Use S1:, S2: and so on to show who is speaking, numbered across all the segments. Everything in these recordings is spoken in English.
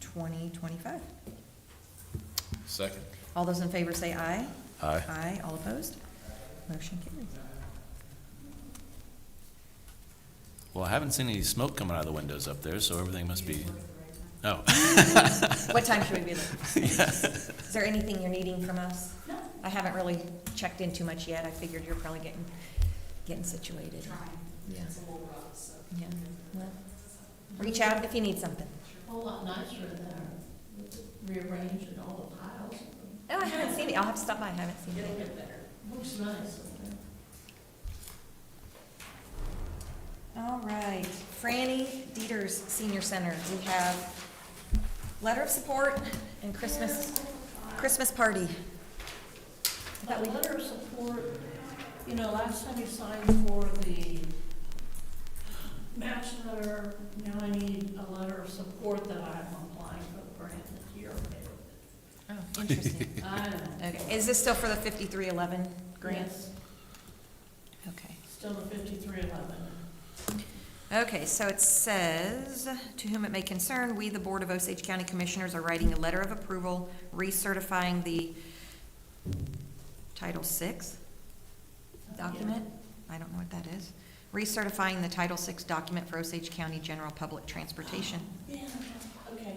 S1: twenty twenty-five.
S2: Second.
S1: All those in favor say aye.
S2: Aye.
S1: Aye, all opposed? Motion carries.
S2: Well, I haven't seen any smoke coming out of the windows up there, so everything must be, oh,
S1: What time should we be there? Is there anything you're needing from us? No. I haven't really checked in too much yet. I figured you're probably getting, getting situated. Yeah. Yeah, well, reach out if you need something.
S3: whole lot nicer than rearranging all the piles.
S1: Oh, I haven't seen it. I'll have to stop by. I haven't seen it.
S3: Looks nice. up there.
S1: All right, Franny Dieters Senior Center, we have letter of support and Christmas, Christmas party.
S3: That letter of support, you know, last time you signed for the match letter, now I need a letter of support that I'm applying for the grant this year.
S1: Oh, interesting.
S3: I know.
S1: Okay, is this still for the fifty-three eleven grant?
S3: Grants,
S1: Okay.
S3: still the fifty-three eleven.
S1: Okay, so it says, "To whom it may concern, we, the Board of Osage County Commissioners, are writing a letter of approval recertifying the Title VI document." I don't know what that is. Recertifying the Title VI document for Osage County General Public Transportation.
S3: Yeah, okay.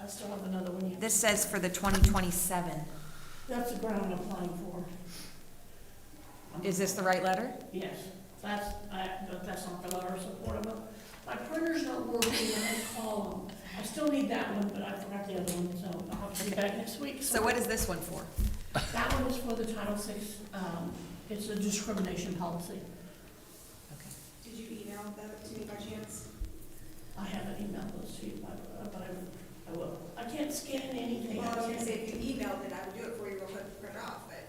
S3: I still have another one yet.
S1: This says for the 2027.
S3: That's the grant I'm applying for.
S1: Is this the right letter?
S3: Yes, that's, I, but that's not the letter of support, I'm, my printer's not working, I had to call them. I still need that one, but I forgot the other one, so I'll have to be back next week.
S1: So what is this one for?
S3: That one is for the Title VI, um, it's a discrimination policy.
S1: Okay.
S4: Did you email that to me by chance?
S3: I haven't emailed those to you, but, but I, I will. I can't scan anything.
S4: Well, I was
S3: I
S4: gonna say,
S3: can't-
S4: if you emailed it, I would do it for you, we'll put it print off, but,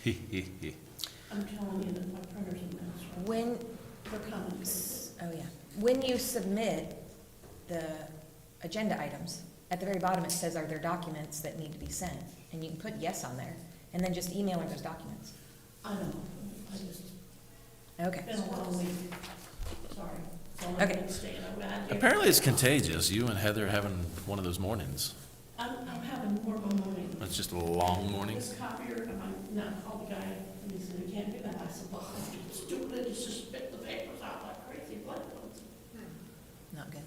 S4: okay.
S3: I'm telling you that my printer's a mess, right?
S1: When,
S3: They're coming.
S1: Oh, yeah. When you submit the agenda items, at the very bottom it says, are there documents that need to be sent? And you can put yes on there, and then just email her those documents.
S3: I know, I just,
S1: Okay.
S3: been a long week, sorry. It's only
S1: Okay.
S3: Wednesday, and I'm gonna have to-
S2: apparently it's contagious, you and Heather having one of those mornings.
S3: I'm, I'm having more of a morning.
S2: It's just a long morning.
S3: This copier, and I'm not called the guy, and he said, you can't do that. I said, well, it's stupid, it's just spit the papers out like crazy, blood ones.
S1: Not good.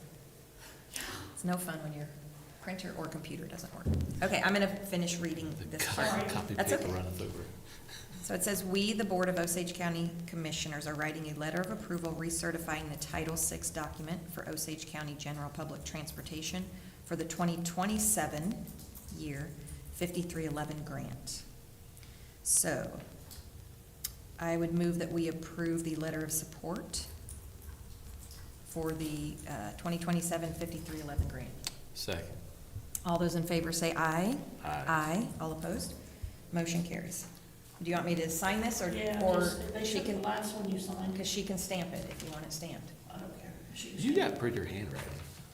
S1: It's no fun when your printer or computer doesn't work. Okay, I'm gonna finish reading
S2: The
S1: this
S2: co-
S1: part.
S3: Sorry.
S2: copy
S1: That's
S2: paper
S1: okay.
S2: runneth over.
S1: So it says, "We, the Board of Osage County Commissioners, are writing a letter of approval recertifying the Title VI document for Osage County General Public Transportation for the 2027 year 5311 grant." So I would move that we approve the letter of support for the uh, 2027 5311 grant.
S2: Second.
S1: All those in favor say aye.
S2: Aye.
S1: Aye. All opposed? Motion carries. Do you want me to sign this, or,
S3: Yeah,
S1: or
S3: just- they
S1: she
S3: took the
S1: can,
S3: last one you signed,
S1: because she can stamp it if you want it stamped.
S3: I don't care. She-
S2: You got prettier handwriting.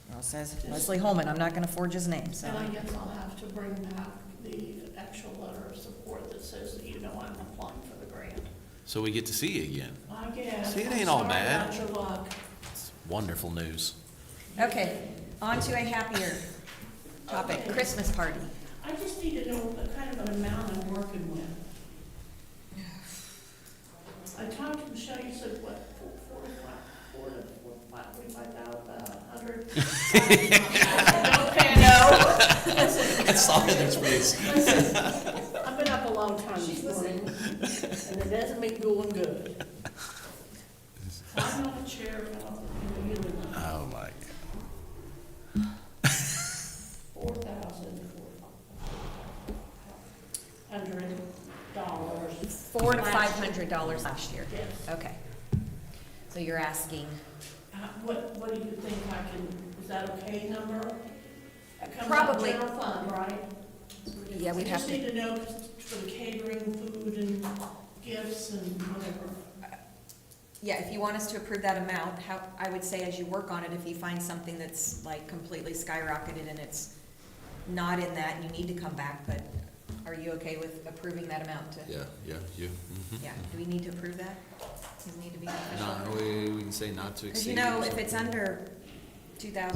S1: Well, it says Leslie Holman, I'm not gonna forge his name, so.
S3: And I guess I'll have to bring back the actual letter of support that says, that you know, I'm applying for the grant.
S2: So we get to see you again.
S3: I guess.
S2: See, it
S3: I'm
S2: ain't all
S3: sorry
S2: bad.
S3: about your luck.
S2: It's wonderful news.
S1: Okay, on to a happier topic,
S3: Okay.
S1: Christmas party.
S3: I just need to know the kind of an amount I'm working with. I talked to Michelle, you said what, four, four, to five- four, to four, five, forty-five thousand, a hundred? Okay,
S1: No.
S2: That's all Heather's face.
S3: listen, I've been up a long time this morning, and it doesn't make doing good. I'm not a chair, I'm a human,
S2: Oh, my.
S3: four thousand, four, hundred dollars,
S1: Four to five hundred dollars last year.
S3: yes.
S1: Okay. So you're asking,
S3: Uh, What, what do you think I can, is that okay number? That comes out of
S1: Probably.
S3: General fund, right?
S1: yeah, we'd have
S3: I just
S1: to,
S3: need to know for the catering, food and gifts and whatever.
S1: yeah, if you want us to approve that amount, how, I would say as you work on it, if you find something that's like completely skyrocketed and it's not in that, you need to come back, but are you okay with approving that amount to?
S5: Yeah, yeah, you.
S1: Yeah, do we need to approve that? Does it need to be official?
S5: Not, we, we can say not to
S1: Because
S5: exceed.
S1: you
S5: or
S1: know, if
S5: something.
S1: it's under two thousand